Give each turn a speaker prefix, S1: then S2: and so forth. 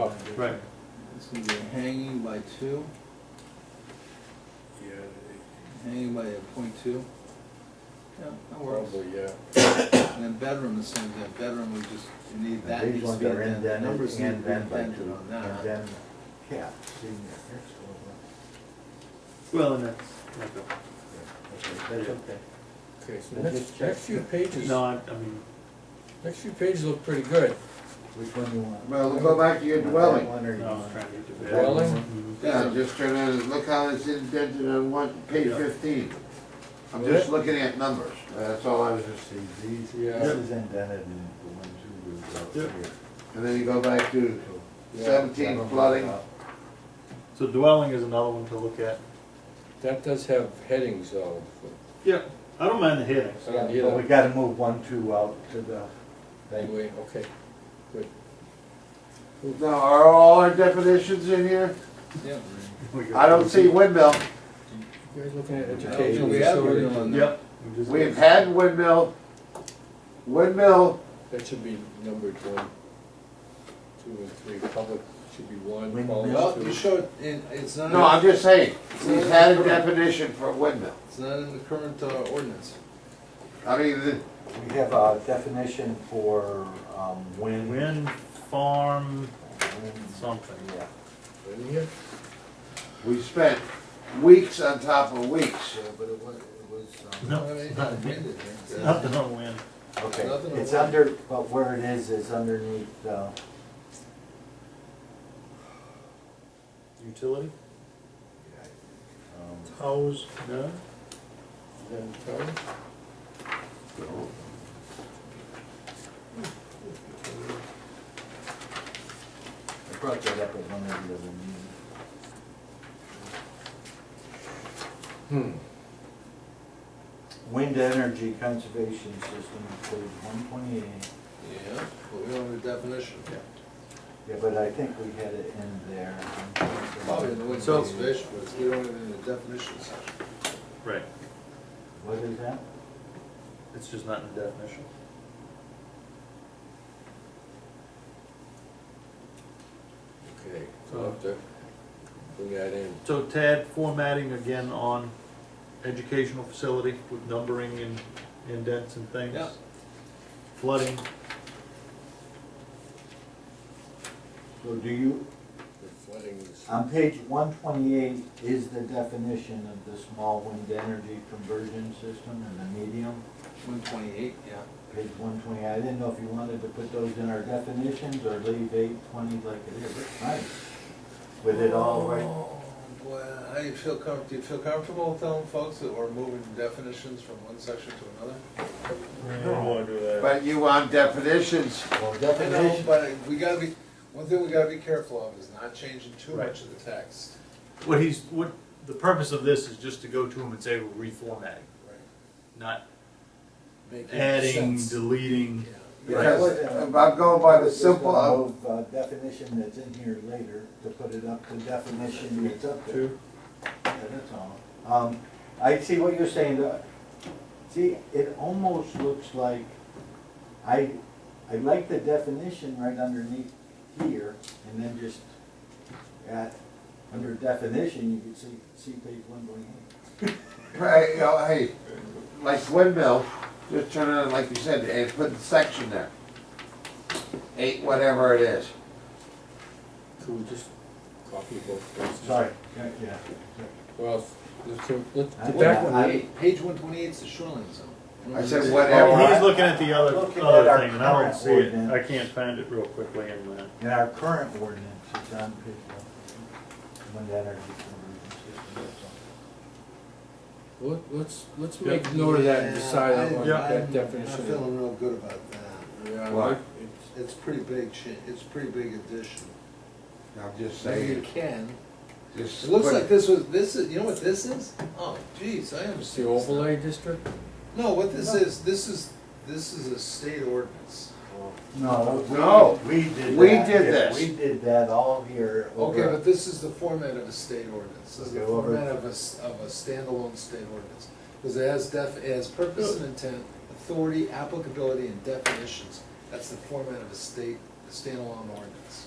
S1: off.
S2: Right.
S3: It's gonna be a hanging by two,
S1: Yeah,
S3: hanging by a point two. Yeah, that works.
S1: probably, yeah.
S3: And then bedroom, the same thing, bedroom, we just need that
S4: These
S3: needs to
S4: ones
S3: be
S4: are
S3: indented, the numbers need
S4: indented
S3: to be
S4: and then by
S3: indented
S4: two,
S3: on
S4: and
S3: that.
S4: then, yeah, see, yeah, that's all
S2: Well, and that's, that's okay.
S4: right. Yeah, okay, that's okay.
S1: Okay, so
S4: Let's
S1: next,
S4: just check.
S1: next few pages,
S2: no, I, I mean,
S1: next few pages look pretty good.
S4: Which one you want?
S5: Well, we'll go back to your
S4: You want
S5: dwelling.
S4: that one or you
S2: no,
S4: want-
S2: I'm trying to get to
S4: that
S2: bed.
S1: Dwelling?
S4: one?
S2: Mhm.
S5: Yeah, just turn it, and look how it's indented on one, page
S2: Yeah.
S5: fifteen. I'm
S1: Yeah.
S5: just looking at numbers, that's all I was just seeing.
S4: See, these,
S1: Yeah.
S4: this is indented and the one, two, is out
S2: Yeah.
S4: here.
S5: And then you go back to
S4: So-
S1: Yeah.
S5: seventeen flooding,
S2: So dwelling is another one to look at.
S1: That does have headings though.
S2: Yeah, I don't mind the headings.
S1: I don't
S4: But we
S1: either.
S4: gotta move one, two out to the thing.
S1: Anyway, okay, good.
S5: now, are all our definitions in here?
S3: Yeah.
S2: We got-
S5: I don't see windmill,
S1: You guys looking at
S3: Yeah,
S1: educational
S3: we have it
S1: facility?
S3: on there.
S2: Yep. we just-
S5: we've had windmill, windmill,
S1: That should be numbered one, two and three, public should be one,
S4: Windmill.
S1: college
S3: Well, you
S1: two.
S3: showed, and it's not,
S5: no, I'm
S3: in-
S5: just saying, we've had a definition for windmill.
S3: it's not in the current uh, ordinance.
S5: I mean, the-
S4: We have a definition for, um, wind.
S2: Wind farm
S4: Wind,
S2: something.
S4: Yeah.
S1: In here?
S5: we spent weeks on top of weeks.
S4: Yeah, but it was, it was, um,
S2: No,
S3: I mean,
S2: it's
S3: it's
S2: not-
S3: amended here.
S2: Nothing on wind.
S4: okay,
S3: Nothing
S4: it's
S3: on-
S4: under, but where it is, is underneath, uh,
S2: Utility?
S4: um,
S2: Hose. No? Uh,
S1: Then town?
S4: I brought that up at one of the other meetings.
S1: Hmm.
S4: Wind energy conservation system, page one twenty-eight.
S3: Yeah, but we don't have a definition.
S4: Yeah, but I think we had it in there.
S3: Probably in the wind
S2: So-
S3: conservation, but we don't have it in the definition section.
S2: Right,
S4: What is that?
S2: it's just not in the definition.
S1: Okay, so I'll have to bring that in.
S2: So Tad, formatting again on educational facility with numbering and indents and things.
S3: Yeah.
S2: Flooding,
S4: So do you,
S1: The flooding is,
S4: on page one twenty-eight is the definition of the small wind energy conversion system and the medium?
S3: One twenty-eight, yeah.
S4: Page one twenty, I didn't know if you wanted to put those in our definitions or leave eight twenty like it is. Nice. With it all right,
S3: Oh, Boy, how do you feel com, do you feel comfortable telling folks that we're moving definitions from one section to another?
S5: But you want definitions,
S4: well,
S3: I know,
S4: definition,
S3: but we gotta be, one thing we gotta be careful of is not changing too
S2: Right.
S3: much of the text.
S2: what he's, what, the purpose of this is just to go to him and say we're reformatting, not
S3: Making
S2: adding,
S3: sense.
S2: deleting.
S3: Yeah.
S5: because if I'm going by the simple,
S4: Just
S5: I'm-
S4: gonna move, uh, Definition that's in here later to put it up to definition that's up there. Yeah, that's all. Um, I see what you're saying, uh, see, it almost looks like, I, I like the definition right underneath here, and then just at, under definition, you can see, see page one twenty-eight.
S5: Hey, you know, hey, like windmill, just turn it on, like you said, and put the section there. Eight, whatever it is.
S1: could we just copy both those?
S4: Sorry, yeah, yeah.
S1: Well, let's, do- let's,
S4: I-
S1: the back
S4: I-
S1: one,
S3: Eight, Page one twenty-eight is the shoreline zone.
S5: I
S3: Mm-hmm.
S5: said
S2: Well,
S3: Oh,
S5: whatever.
S2: Oh, He's looking at the other,
S4: Looking at
S2: other
S4: our
S2: thing, and I don't
S4: current
S2: see it,
S4: ordinance.
S2: I can't find it real quickly in that.
S4: In our current ordinance, it's on page one, when that energy conversion
S1: let- let's, let's
S2: Yeah.
S1: make note of that and
S3: Yeah,
S1: decide
S3: I-
S1: on
S2: Yeah.
S1: that
S3: I'm
S1: definition.
S3: feeling real good about that.
S1: Yeah,
S5: Why?
S1: like, it's-
S3: It's pretty big cha, it's pretty big addition.
S5: I'm just
S3: You
S5: saying,
S3: can.
S5: just.
S3: It looks
S5: put
S3: like this was, this is, you know what this is? Oh, geez, I
S1: It's the
S3: understand. this now.
S1: overlay district?
S3: No, what this is, this is, this is a state ordinance.
S4: No, we-
S5: No,
S4: we did
S5: we
S4: that.
S5: did
S4: Yeah,
S5: this.
S4: We did that all here
S3: Okay,
S4: over
S3: but this is the format of a state ordinance, this is the
S4: Okay, over-
S3: format of a, s- of a standalone state ordinance. Because it has def, it has purpose and intent, authority, applicability, and definitions, that's the format of a state, a standalone ordinance.